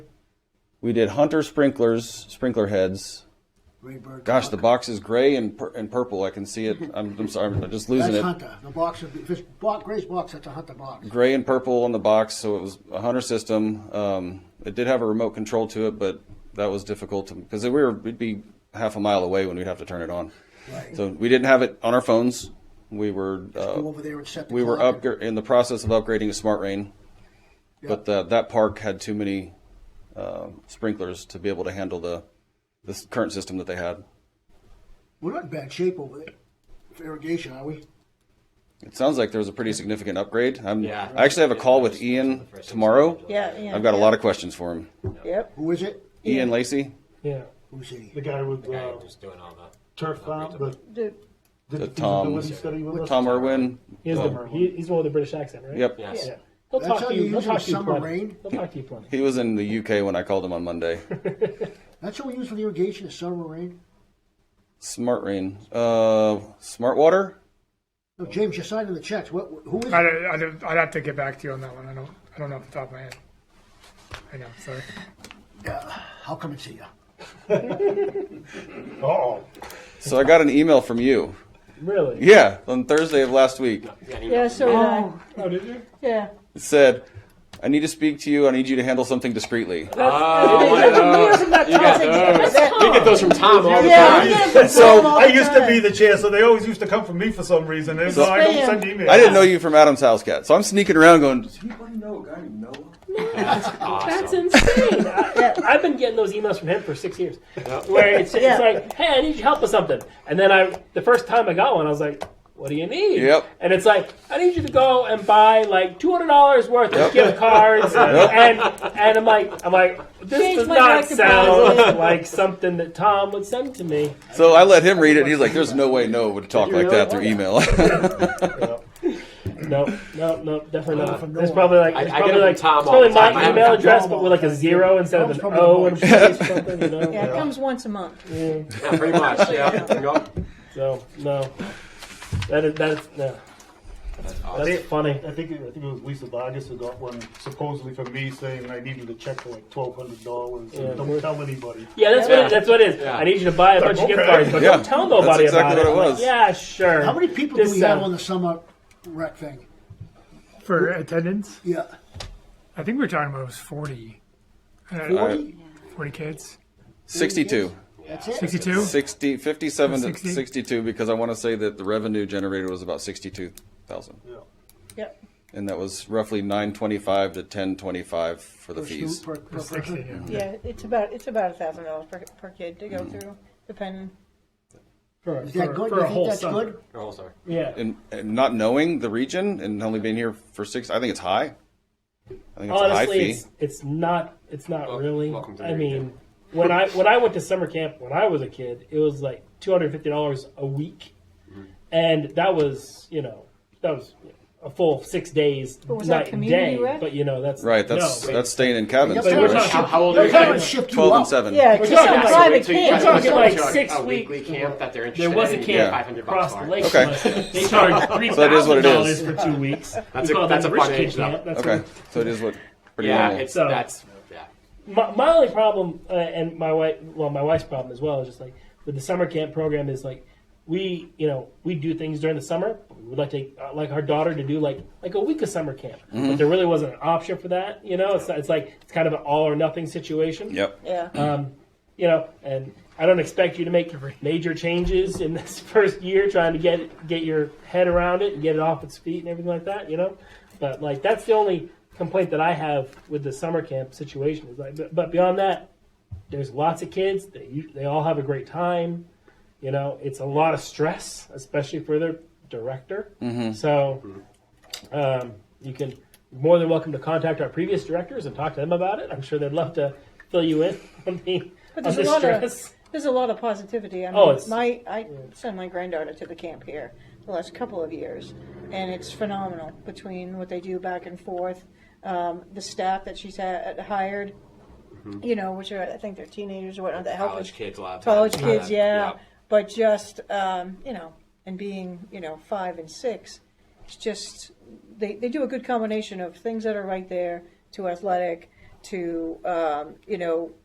We did Hunter sprinklers, sprinkler heads. Greenberg. Gosh, the box is gray and pur- and purple. I can see it. I'm, I'm sorry, I'm just losing That's it. Hunter. The box would be, if it's box, Gray's box, that's a Hunter box. Gray and purple on the box, so it was a Hunter system. Um, it did have a remote control to it, but that was difficult because we were we'd be half a mile away when we'd have to turn it on. Right. So we didn't have it on our phones. We were Go uh, over there and set the we were clock. up in the process of upgrading to Smart Rain, but the, that park had too many uh, sprinklers to be able to handle the this current system that they had. We're not in bad shape over there for irrigation, are we? It sounds like there was a pretty significant upgrade. I'm, Yeah. I actually have a call with Ian tomorrow. Yeah, yeah. I've got a lot of questions for him. Yep. Who is it? Ian Lacey, Yeah, Who's he? the guy with Yeah, uh, who's doing all that. turf farm, the, The- did the Tom- feasibility study with us. Tom Irwin. He has Oh. Well, the, he, he's the one with the British accent, right? Yep. Yes. Yeah. He'll That's how talk to you you. He'll use your talk to you summer plenty. rain. He'll talk to you plenty. He was in the UK when I called him on Monday. That's what we use for the irrigation, is summer rain? Smart Rain. Uh, Smart Water? No, James, you're signing the checks. What, who is I it? don't, I don't, I'd have to get back to you on that one. I don't, I don't know off the top of my head. I know, sorry. I'll come and see you. Oh, So I got an email from you. Really? Yeah, on Thursday of last week. Yeah, so did I. oh, did you? Yeah. It said, I need to speak to you. I need you to handle something discreetly. We get those from Tom all the Yeah, time. we get it from Tom all I the used to time. be the chair, so they always used to come for me for some reason. And so I Spam. don't send emails. I didn't know you from Adam's house cat. So I'm sneaking around going, Does anybody know a guy named Noah? That's insane. I, I've been getting those emails from him for six years, where it's, it's Yeah. like, "Hey, I need your help with something," and then I, the first time I got one, I was like, "What do you need?" Yep. And it's like, "I need you to go and buy like two hundred dollars worth of gift cards," and and I'm like, "I'm like, this Change does my not back deposit. sound like something that Tom would send to me." So I let him read it. He's like, There's no way Noah would talk like that through email. No, no, no, definitely not. from There's Noah. probably like I- there's I get it probably from like Tom it's all the probably my time. I have email it from address, Tom but all with like a zero instead Tom's of an probably O and the place or something. You know? Yeah, it comes once a month. Yeah, pretty much. Yeah. Yep. So no, that is that is no. That's That's awesome. funny. I think, it, I think it was Lisa Vargas who got one supposedly from me saying I needed a check for like twelve hundred dollars. Yeah. Don't tell anybody. Yeah, that's what it, that's what it is. Yeah. I need you to buy a bunch of gift okay. cards, but Yeah, don't tell that's nobody exactly what about it I'm like, was. yeah, sure. How many people do This uh, we have sound- on the summer rec thing? For attendance, Yeah. I think we were talking about it was 40. Uh, 40? 40 kids? 62. That's it? 62? 60, 57 to 60? 62 because I want to say that the revenue generated was about 62,000. Yep. And that was roughly 925 to 1025 for the Per stu- fees. per- per 60, person? yeah. Yeah, it's about it's about a thousand dollars per per kid to go through, depending. For, Is that for- good? for You a think whole that's summer. good? Oh, sorry. Yeah. And, and not knowing the region and only being here for six, I think it's high. I think it's a high Honestly, fee. it's, it's not it's not Wel- really. welcome to I the mean, weekend. when I when I went to summer camp when I was a kid, it was like two hundred fifty dollars a week, Mm-hmm. and that was you know that was a full six days, But was that night and community day. rec? But you know that's Right, that's no, that's staying in cabins. But too, we're right? talking- How, how old are They're you trying to guys? shift you 12 and up. 7. Yeah, it's talking a like- private So you guys kid. talking have like a six week- weekly camp that they're interested There was a in. camp You get 500 bucks across for the it. lake. Okay. from us. They charge three that is what it thousand is. dollars for two weeks. That's We a- call that's that a rich fun kid age, though. camp. That's Okay, so it is what pretty Yeah, normal. it's So- that's yeah. my, my only problem uh, and my wife well my wife's problem as well is just like with the summer camp program is like we you know we do things during the summer we would like to uh, like our daughter to do like like a week of summer camp Mm-hmm. but there really wasn't an option for that you know it's, it's like it's kind of an all or nothing situation Yep. Yeah. you know and I don't expect you to make major changes in this first year trying to get get your head around it and get it off its feet and everything like that, you know. But like that's the only complaint that I have with the summer camp situation is like but, but beyond that there's lots of kids they u- they all have a great time. You know, it's a lot of stress especially for their director. So um, you can you're more than welcome to contact our previous directors and talk to them about it. I'm sure they'd love to fill you in on the But on there's the a lot of- stress. There's a lot of positivity. I mean, Oh, it's- my I sent my granddaughter to the camp here the last couple of years, and it's phenomenal between what they do back and forth, um, the staff that she's had, hired, you know, which are I think they're teenagers or whatnot that help Mm-hmm. College us- kids a lot of times. college kids, Uh, yeah. yeah. But just um, you know, and being you know five and six, it's just they they do a good combination of things that are right there to athletic to um, you know